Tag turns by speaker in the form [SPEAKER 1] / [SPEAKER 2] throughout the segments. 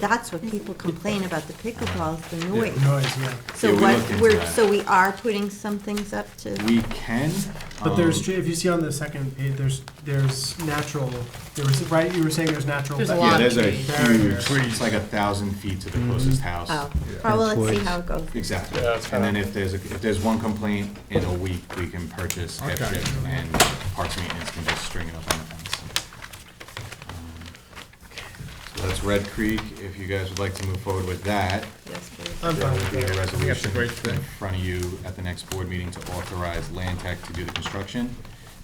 [SPEAKER 1] that's what people complain about the pickleball, is the
[SPEAKER 2] Yeah,
[SPEAKER 1] noise.
[SPEAKER 2] Noise, yeah.
[SPEAKER 1] So
[SPEAKER 3] Yeah, we
[SPEAKER 1] what,
[SPEAKER 3] looked into
[SPEAKER 1] we're,
[SPEAKER 3] that.
[SPEAKER 1] so we are putting some things up to,
[SPEAKER 3] We can.
[SPEAKER 2] But there's,
[SPEAKER 3] um,
[SPEAKER 2] ju- if you see on the second page, there's, there's natural, there was, right, you were saying there's natural.
[SPEAKER 4] There's a
[SPEAKER 3] Yeah,
[SPEAKER 4] lot of
[SPEAKER 3] there's a
[SPEAKER 4] trees.
[SPEAKER 3] huge, it's like a thousand feet to the closest house.
[SPEAKER 1] oh, oh, well, let's see how it goes.
[SPEAKER 3] Exactly.
[SPEAKER 5] Yeah, that's
[SPEAKER 3] And
[SPEAKER 5] fine.
[SPEAKER 3] then if there's, a- if there's one complaint in a week, we can purchase hip
[SPEAKER 6] Okay.
[SPEAKER 3] chip and parks maintenance can just string it up on the fence. Um, So that's Red Creek, if you guys would like to move forward with that.
[SPEAKER 4] Yes, please.
[SPEAKER 2] I'm
[SPEAKER 3] There
[SPEAKER 2] fine
[SPEAKER 3] will
[SPEAKER 2] with
[SPEAKER 3] be a
[SPEAKER 2] that.
[SPEAKER 3] resolution
[SPEAKER 6] great thing.
[SPEAKER 3] in front of you at the next board meeting to authorize Land Tech to do the construction.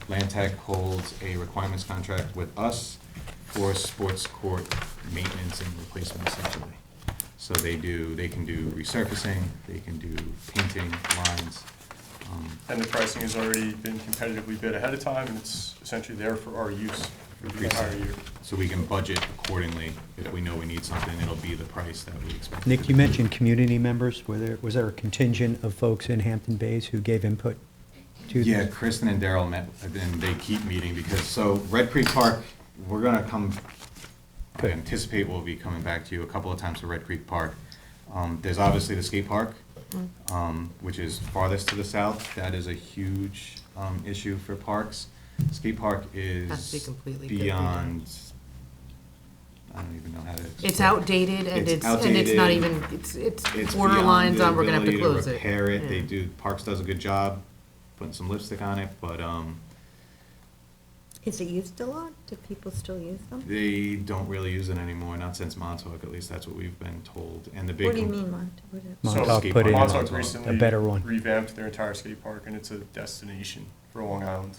[SPEAKER 3] Land Tech holds a requirements contract with us for sports court maintenance and replacement essentially. So they do, they can do resurfacing, they can do painting lines. um,
[SPEAKER 5] And the pricing has already been competitively bid ahead of time, and it's essentially there for our use for the entire year.
[SPEAKER 3] So we can budget accordingly. If we know we need something, it'll be the price that we expect.
[SPEAKER 7] Nick, you mentioned community members. Were there, was there a contingent of folks in Hampton Bays who gave input to this?
[SPEAKER 3] Yeah, Kristen and Daryl met, and they keep meeting because, so Red Creek Park, we're gonna come, I
[SPEAKER 7] Good.
[SPEAKER 3] anticipate we'll be coming back to you a couple of times to Red Creek Park. Um, there's obviously the skate park,
[SPEAKER 4] Mm.
[SPEAKER 3] um, which is farthest to the south. That is a huge, um, issue for parks. Skate park
[SPEAKER 4] Has to be
[SPEAKER 3] is
[SPEAKER 4] completely different.
[SPEAKER 3] beyond, I don't even know how to.
[SPEAKER 4] It's
[SPEAKER 3] explain.
[SPEAKER 4] outdated and
[SPEAKER 3] It's
[SPEAKER 4] it's, and it's not
[SPEAKER 3] outdated.
[SPEAKER 4] even, it's, it's
[SPEAKER 3] It's beyond
[SPEAKER 4] borderline
[SPEAKER 3] the
[SPEAKER 4] on, um, we're gonna have to
[SPEAKER 3] ability
[SPEAKER 4] close it.
[SPEAKER 3] Repair it, they
[SPEAKER 4] Yeah.
[SPEAKER 3] do, Parks does a good job putting some lipstick on it, but, um,
[SPEAKER 1] Is it used a lot? Do people still use them?
[SPEAKER 3] They don't really use it anymore, not since Montauk, at least that's what we've been told, and the big.
[SPEAKER 1] What do you
[SPEAKER 3] com-
[SPEAKER 1] mean, Montauk? What is-
[SPEAKER 5] So
[SPEAKER 7] Montauk put in
[SPEAKER 5] Montauk
[SPEAKER 3] a
[SPEAKER 5] recently
[SPEAKER 7] better one.
[SPEAKER 5] revamped their entire skate park, and it's a destination for Long Island,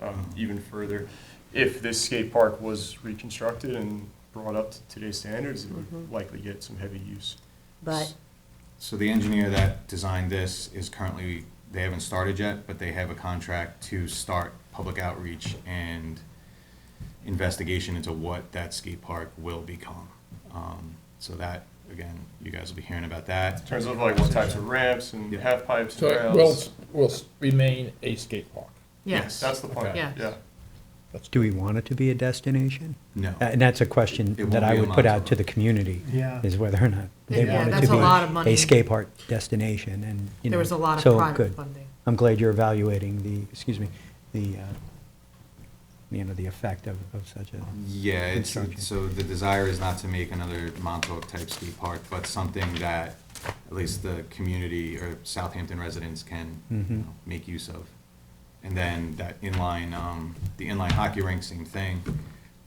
[SPEAKER 5] um,
[SPEAKER 7] Mm-hmm.
[SPEAKER 5] even further. If this skate park was reconstructed and brought up to today's standards, it
[SPEAKER 4] Mm-hmm.
[SPEAKER 5] would likely get some heavy use.
[SPEAKER 1] But,
[SPEAKER 3] So the engineer that designed this is currently, they haven't started yet, but they have a contract to start public outreach and investigation into what that skate park will become. Um, so that, again, you guys will be hearing about that.
[SPEAKER 5] In terms of like what types of ramps and
[SPEAKER 3] Yeah.
[SPEAKER 5] half pipes
[SPEAKER 6] So
[SPEAKER 5] and
[SPEAKER 6] it will,
[SPEAKER 5] rails,
[SPEAKER 6] will remain a skate park.
[SPEAKER 3] Yes.
[SPEAKER 4] Yes,
[SPEAKER 5] that's the point,
[SPEAKER 4] Okay.
[SPEAKER 5] yeah.
[SPEAKER 7] Do we want it to be a destination?
[SPEAKER 3] No.
[SPEAKER 7] Uh, And that's a question
[SPEAKER 3] It won't
[SPEAKER 7] that I
[SPEAKER 3] be a
[SPEAKER 7] would put out
[SPEAKER 3] Montauk.
[SPEAKER 7] to the community.
[SPEAKER 2] Yeah.
[SPEAKER 7] Is whether or not they
[SPEAKER 4] Yeah,
[SPEAKER 7] want it
[SPEAKER 4] that's a lot
[SPEAKER 7] to
[SPEAKER 4] of
[SPEAKER 7] be
[SPEAKER 4] money.
[SPEAKER 7] a skate park destination and, you know.
[SPEAKER 4] there was a lot
[SPEAKER 7] so,
[SPEAKER 4] of private
[SPEAKER 7] good.
[SPEAKER 4] funding.
[SPEAKER 7] I'm glad you're evaluating the, excuse me, the, uh, you know, the effect of, of such a,
[SPEAKER 3] Yeah, it's,
[SPEAKER 7] Construction.
[SPEAKER 3] so the desire is not to make another Montauk-type skate park, but something that at least the community or Southampton residents can, you
[SPEAKER 7] Mhm.
[SPEAKER 3] know, make use of. And then that inline, um, the inline hockey rink, same thing.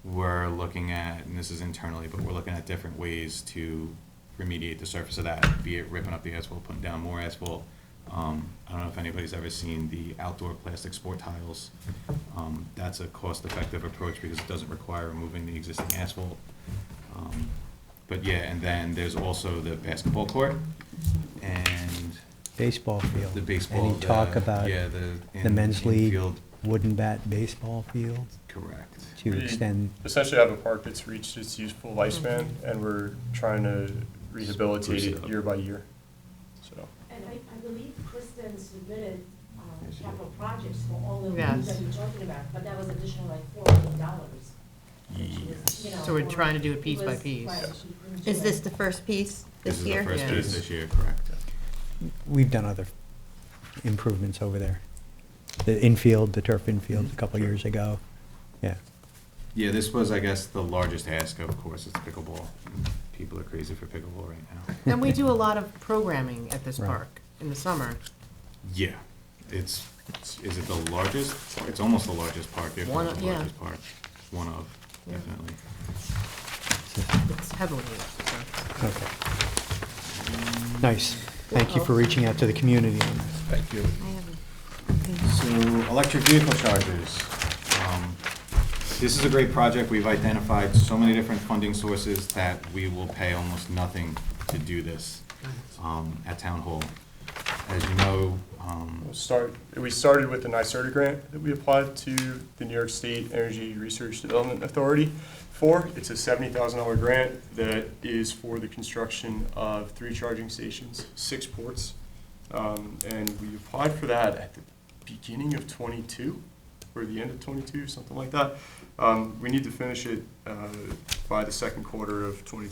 [SPEAKER 3] We're looking at, and this is internally, but we're looking at different ways to remediate the surface of that, be it ripping up the asphalt, putting down more asphalt. Um, I don't know if anybody's ever seen the outdoor plastic sport tiles. Um, that's a cost-effective approach because it doesn't require removing the existing asphalt. Um, But yeah, and then there's also the basketball court and
[SPEAKER 7] baseball field.
[SPEAKER 3] the baseball.
[SPEAKER 7] And you talk
[SPEAKER 3] the-
[SPEAKER 7] about
[SPEAKER 3] yeah, the
[SPEAKER 7] the
[SPEAKER 3] in-
[SPEAKER 7] men's league
[SPEAKER 3] infield.
[SPEAKER 7] wooden bat baseball field
[SPEAKER 3] Correct.
[SPEAKER 7] to
[SPEAKER 5] We
[SPEAKER 7] extend
[SPEAKER 5] Essentially have a park that's reached its useful lifespan, and we're trying to rehabilitate
[SPEAKER 3] Spruce it
[SPEAKER 5] it
[SPEAKER 3] up.
[SPEAKER 5] year by year, so.
[SPEAKER 8] And I, I believe Kristen submitted, um,
[SPEAKER 3] Yes, she did.
[SPEAKER 8] capital projects for all the
[SPEAKER 4] Yes.
[SPEAKER 8] things that you're talking about, but that was additional like four hundred dollars.
[SPEAKER 3] Yes.
[SPEAKER 4] So we're trying to do it piece by piece.
[SPEAKER 1] is this the first piece this year?
[SPEAKER 3] is the first
[SPEAKER 4] Yeah.
[SPEAKER 3] piece this year, correct.
[SPEAKER 7] we've done other improvements over there. The infield, the turf infield a couple of years ago. Yeah.
[SPEAKER 3] Yeah, this was, I guess, the largest ask, of course, it's pickleball. People are crazy for pickleball right now.
[SPEAKER 4] And we do a lot of programming at this
[SPEAKER 7] Right.
[SPEAKER 4] park in the summer.
[SPEAKER 3] Yeah, it's, is it the largest? It's almost the largest park, if
[SPEAKER 4] One
[SPEAKER 3] not
[SPEAKER 4] of-
[SPEAKER 3] the
[SPEAKER 4] yeah.
[SPEAKER 3] largest park. One of, definitely.
[SPEAKER 4] It's heavily used, so.
[SPEAKER 7] Okay. Nice. Thank you for reaching out to the community on this.
[SPEAKER 6] Thank you.
[SPEAKER 1] I haven't-
[SPEAKER 3] So, electric vehicle chargers. Um, This is a great project. We've identified so many different funding sources that we will pay almost nothing to do this um, at Town Hall. As you know, um,
[SPEAKER 5] We'll start, we started with the NYSERDA grant that we applied to the New York State Energy Research Development Authority for. It's a seventy thousand dollar grant that is for the construction of three charging stations, six ports. Um, and we applied for that at the beginning of twenty-two, or the end of twenty-two, something like that. Um, we need to finish it, uh, by the second quarter of twenty